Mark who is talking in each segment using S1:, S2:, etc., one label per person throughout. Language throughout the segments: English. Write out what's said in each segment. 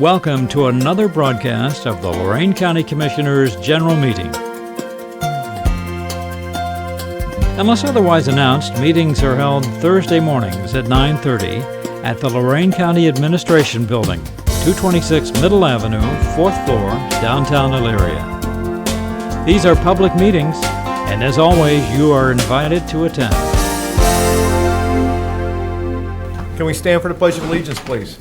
S1: Welcome to another broadcast of the Lorraine County Commissioners' General Meeting. Unless otherwise announced, meetings are held Thursday mornings at 9:30 at the Lorraine County Administration Building, 226 Middle Avenue, 4th floor, downtown Elyria. These are public meetings, and as always, you are invited to attend.
S2: Can we stand for the Pledge of Allegiance, please?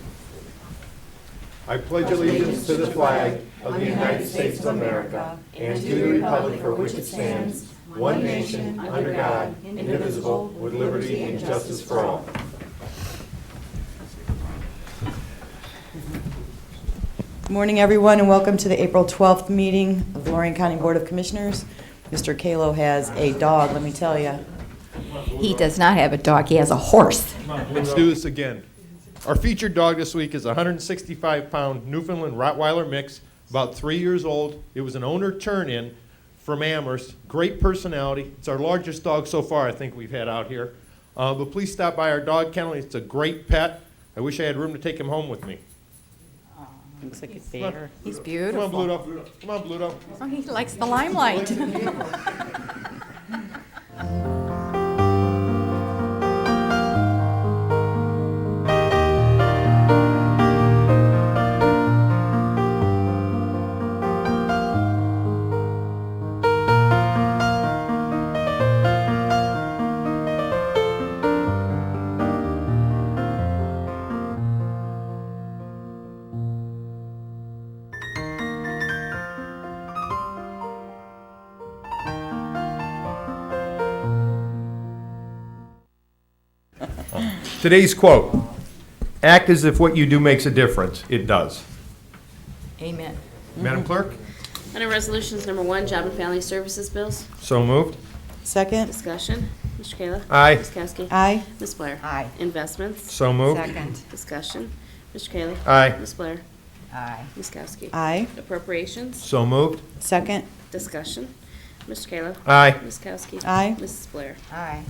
S3: Morning, everyone, and welcome to the April 12th meeting of the Lorraine County Board of Commissioners. Mr. Kalo has a dog, let me tell you.
S4: He does not have a dog, he has a horse.
S2: Let's do this again. Our featured dog this week is a 165-pound Newfoundland Rottweiler mix, about three years old. It was an owner turn-in from Amherst. Great personality. It's our largest dog so far, I think, we've had out here. Uh, But please stop by our dog kennel. It's a great pet. I wish I had room to take him home with me.
S3: Looks like a bear.
S4: He's
S2: Come on,
S4: beautiful.
S2: Bluto. Come on, Bluto.
S4: Oh, He likes the limelight.
S2: Today's quote, "Act as if what you do makes a difference. It does."
S4: Amen.
S2: Madam Clerk?
S5: Under Resolutions Number One, Job and Family Services Bills,
S2: So moved.
S3: Second?
S5: discussion. Mr. Kayla?
S2: Aye.
S5: Ms. Kowski?
S3: Aye.
S5: Ms. Blair?
S4: Aye.
S5: Investments,
S2: So moved.
S4: Second.
S5: discussion. Mr. Kayla?
S2: Aye.
S5: Ms. Blair?
S4: Aye.
S5: Ms. Kowski?
S3: Aye.
S5: Appropriations,
S2: So moved.
S3: Second?
S5: discussion. Mr. Kayla?
S2: Aye.
S5: Ms. Kowski?
S3: Aye.
S5: Mrs. Blair?
S4: Aye.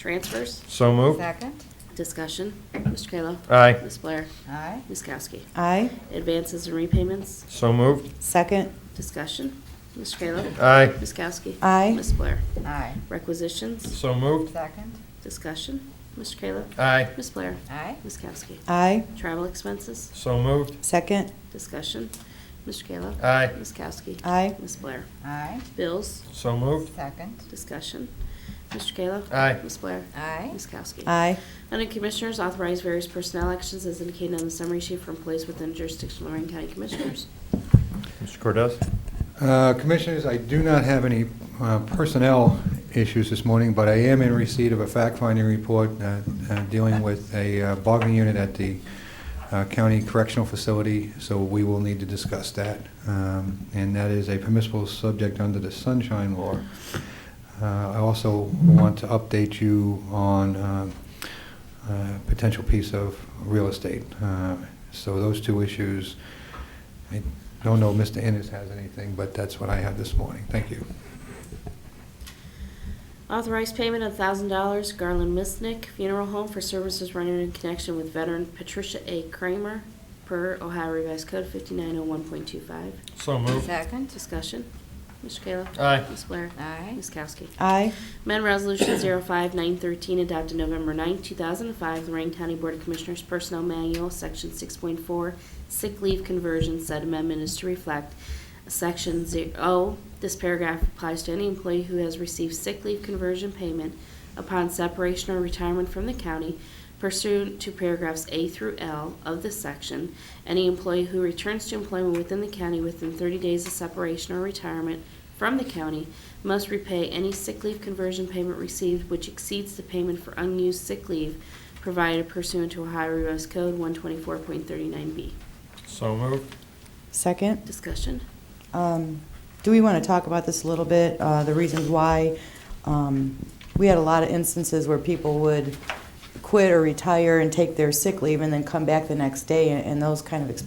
S5: Transfers,
S2: So moved.
S4: Second.
S5: discussion. Mr. Kayla?
S2: Aye.
S5: Ms. Blair?
S4: Aye.
S5: Ms. Kowski?
S3: Aye.
S5: Advances and repayments,
S2: So moved.
S3: Second?
S5: discussion. Mr. Kayla?
S2: Aye.
S5: Ms. Kowski?
S3: Aye.
S5: Ms. Blair?
S4: Aye.
S5: Requisitions,
S2: So moved.
S4: Second.
S5: discussion. Mr. Kayla?
S2: Aye.
S5: Ms. Blair?
S4: Aye.
S5: Ms. Kowski?
S3: Aye.
S5: Travel expenses,
S2: So moved.
S3: Second?
S5: Discussion. Mr. Kayla?
S2: Aye.
S5: Ms. Kowski?
S3: Aye.
S5: Ms. Blair?
S4: Aye.
S5: Bills?
S2: So moved.
S4: Second.
S5: Discussion. Mr. Kayla?
S2: Aye.
S5: Ms. Blair?
S4: Aye.
S5: Ms. Kowski?
S3: Aye.
S5: Under Commissioners, authorize various personnel actions as indicated on the summary sheet for employees within jurisdiction of Lorraine County Commissioners.
S2: Mr. Cordez?
S6: Uh, Commissioners, I do not have any uh, personnel issues this morning, but I am in receipt of a fact-finding report uh, uh, dealing with a uh, bargaining unit at the uh, county correctional facility, so we will need to discuss that. Um, And that is a permissible subject under the sunshine law. Uh, I also want to update you on um, a potential piece of real estate. Uh, So those two issues, I don't know if Mr. Ennis has anything, but that's what I have this morning. Thank you.
S5: Authorize payment of thousand dollars Garland Misnick Funeral Home for services rendered in connection with veteran Patricia A. Kramer per Ohio Revised Code fifty-nine oh one point two five.
S2: So moved.
S4: Second.
S5: Discussion. Mr. Kayla?
S2: Aye.
S5: Ms. Blair?
S4: Aye.
S5: Ms. Kowski?
S3: Aye.
S5: Amendment Resolution 05913, adopted November 9, 2005, Lorraine County Board of Commissioners Personnel Manual, Section 6.4, Sick Leave Conversion. Said amendment is to reflect Section 0. This paragraph applies to any employee who has received sick leave conversion payment upon separation or retirement from the county pursuant to paragraphs A through L of this section. Any employee who returns to employment within the county within 30 days of separation or retirement from the county must repay any sick leave conversion payment received which exceeds the payment for unused sick leave provided pursuant to Ohio Revised Code 124.39B.
S2: So moved.
S3: Second?
S5: Discussion?
S3: Um, Do we want to talk about this a little bit, uh, the reasons why? um, We had a lot of instances where people would quit or retire and take their sick leave and then come back the next day, and- and those kind of expenses